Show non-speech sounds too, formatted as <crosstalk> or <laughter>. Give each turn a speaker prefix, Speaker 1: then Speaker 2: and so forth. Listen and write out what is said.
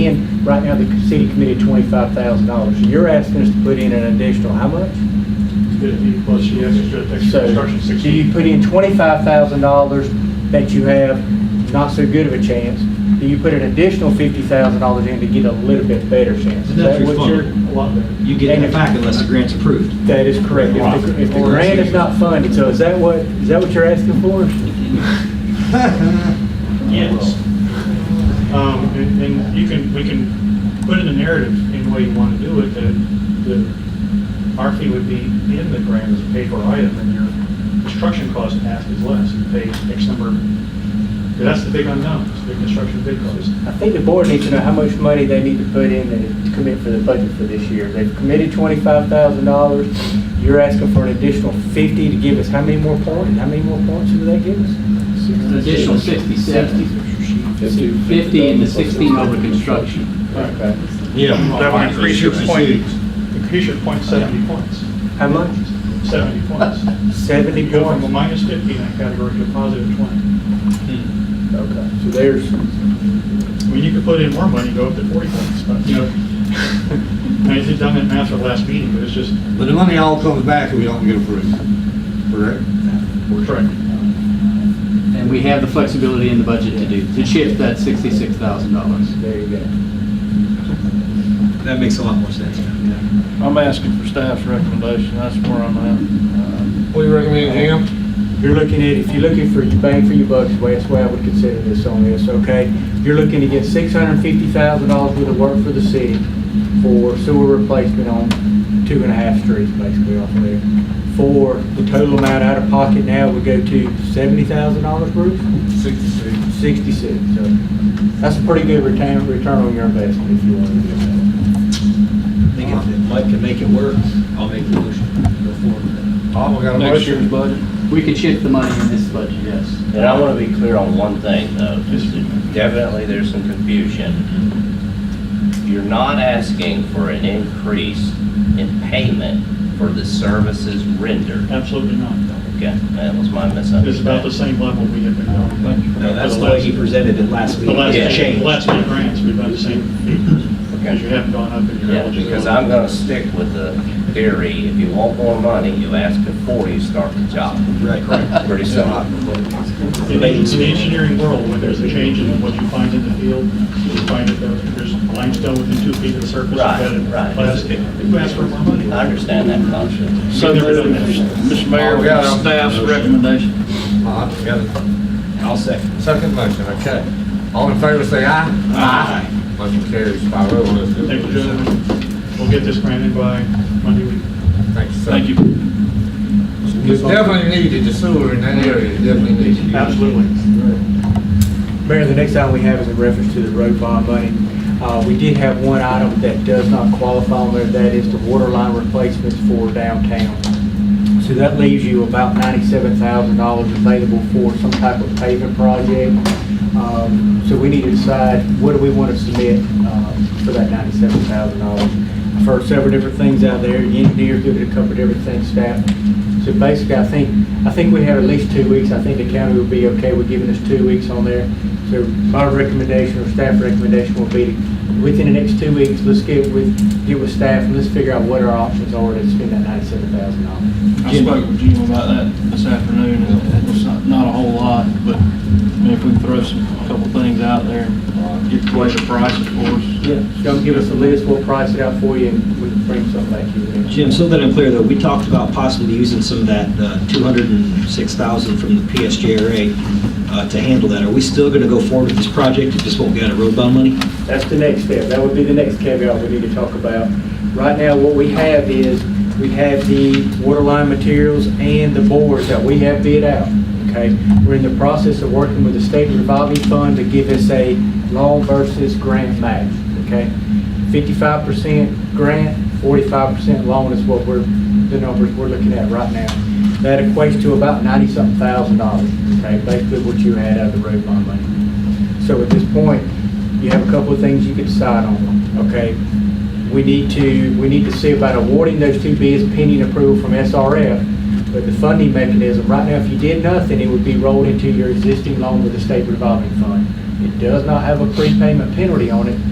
Speaker 1: in, right now, the city committed twenty-five thousand dollars. You're asking us to put in an additional, how much?
Speaker 2: Fifty plus the extra, extra
Speaker 1: So,
Speaker 2: construction,
Speaker 1: so you
Speaker 2: sixty.
Speaker 1: put in twenty-five thousand dollars that you have not so good of a chance, do you put an additional fifty thousand dollars in to get a little bit better chance? Is
Speaker 3: And that's
Speaker 1: that what you're-
Speaker 2: A
Speaker 3: refundable.
Speaker 2: lot better.
Speaker 3: You get it back unless the grant's approved.
Speaker 1: That is correct. If the, if the grant is not funded, so is that what, is that what you're asking for?
Speaker 2: Yes. Um, and, and you can, we can put in the narrative any way you want to do it, that the, our fee would be in the grant as a paid for item, and your construction cost half is less, you pay X number. 'cause That's the big unknown, is the construction bid cost.
Speaker 1: I think the board needs to know how much money they need to put in to commit for the budget for this year. They've committed twenty-five thousand dollars. You're asking for an additional fifty to give us, how many more points? How many more points do they give us?
Speaker 4: An additional 67. 50 and the 16 over construction.
Speaker 1: Okay.
Speaker 5: Yeah.
Speaker 2: That would increase your point, increase your point seventy points,
Speaker 1: How much?
Speaker 2: seventy points.
Speaker 1: Seventy
Speaker 2: You go from a
Speaker 1: points.
Speaker 2: minus fifty in that category to a positive twenty.
Speaker 1: Okay, so there's,
Speaker 2: I mean, you could put in more money, go up to 40 points, but, you know, <laughs> I just done that math for the last meeting, but it's just,
Speaker 5: But the money all comes back if we don't get approved, correct?
Speaker 2: we're trying.
Speaker 4: And we have the flexibility in the budget to do, to shift that $66,000.
Speaker 1: there you go.
Speaker 3: That makes a lot more sense.
Speaker 6: I'm asking for staff's recommendation, that's where I'm at.
Speaker 7: What do you recommend, Jim?
Speaker 1: You're looking at, if you're looking for your bang for your buck, is the way- that's the way I would consider this on this, okay? You're looking to get six hundred and fifty thousand dollars worth of work for the city for sewer replacement on two and a half streets, basically, off of there. For the total amount out of pocket now would go to seventy thousand dollars, Bruce? Sixty-six. Sixty-six, so that's a pretty good return, return on your investment if you want to do that.
Speaker 3: I think if Mike can make it work, I'll make the motion. Go forward.
Speaker 5: Tom, we
Speaker 6: Uh,
Speaker 5: got a
Speaker 6: Next year's
Speaker 5: motion.
Speaker 6: budget.
Speaker 4: We can shift the money in this budget, yes.
Speaker 8: And I want to be clear on one thing, though, just that definitely there's some confusion. You're not asking for an increase in payment for the services rendered.
Speaker 2: Absolutely not.
Speaker 8: Okay, that was my
Speaker 2: It's about the
Speaker 8: misunderstanding.
Speaker 2: same level we have been on.
Speaker 3: No, that's the way he presented it last
Speaker 2: The
Speaker 3: week.
Speaker 2: last,
Speaker 3: It
Speaker 2: the
Speaker 3: changed.
Speaker 2: last few grants, we've done the same, because you haven't gone up in your
Speaker 8: Yeah,
Speaker 2: eligibility.
Speaker 8: because I'm going to stick with the theory, if you want more money, you ask before you start the job.
Speaker 3: Right, correct.
Speaker 8: Pretty simple.
Speaker 2: In the in the engineering world, when there's a change in what you find in the field, you find that there- there's limestone within two feet of the surface.
Speaker 8: Right,
Speaker 2: you've got
Speaker 8: right.
Speaker 2: plastic. You ask for more money.
Speaker 8: I understand that concept.
Speaker 6: So,
Speaker 2: We've never done that.
Speaker 6: Mr. Mayor, we got staff's recommendation.
Speaker 5: Uh-huh, we got a
Speaker 3: I'll second.
Speaker 5: Second motion, okay. All in favor, say aye. Aye. Motion carries five oh. Let's do it.
Speaker 2: Thank you, gentlemen. We'll get this granted by Monday week.
Speaker 5: Thank you, sir.
Speaker 6: Thank you.
Speaker 5: It's definitely needed, the sewer in that area is definitely needed.
Speaker 2: Absolutely.
Speaker 1: Mayor, the next item we have is in reference to the road bond money. Uh, We did have one item that does not qualify on there, that is the water line replacements for downtown. So that leaves you about ninety-seven thousand dollars available for some type of paving project. Um, So we need to decide, what do we want to submit uh, for that ninety-seven thousand dollars? I've heard several different things out there, the engineers did a couple of different things, staff. So basically, I think, I think we have at least two weeks, I think the county will be okay with giving us two weeks on there. So my recommendation or staff recommendation will be, within the next two weeks, let's get with, get with staff and let's figure out what our options are to spend that ninety-seven thousand dollars.
Speaker 6: I spoke with Jim about that this afternoon, and it's not, not a whole lot, but I mean, if we can throw some, a couple things out there, and get later prices for us.
Speaker 1: Yeah, don't give us a list, we'll price it out for you, and we can bring something back to you.
Speaker 3: Jim, so that I'm clear though, we talked about possibly using some of that uh, 206,000 from the PSJRA uh, to handle that. Are we still going to go forward with this project? It just won't get a road bond money?
Speaker 1: That's the next step, that would be the next caveat we need to talk about. Right now, what we have is, we have the water line materials and the boards that we have bid out, okay? We're in the process of working with the state revolving fund to give us a loan versus grant match, okay? Fifty-five percent grant, forty-five percent loan is what we're, the numbers we're looking at right now. That equates to about ninety-something thousand dollars, okay, basically what you had out of the road bond money. So at this point, you have a couple of things you could decide on, okay? We need to, we need to see about awarding those two bids pending approval from SRF, but the funding mechanism, right now, if you did nothing, it would be rolled into your existing loan with the state revolving fund. It does not have a prepayment penalty on it,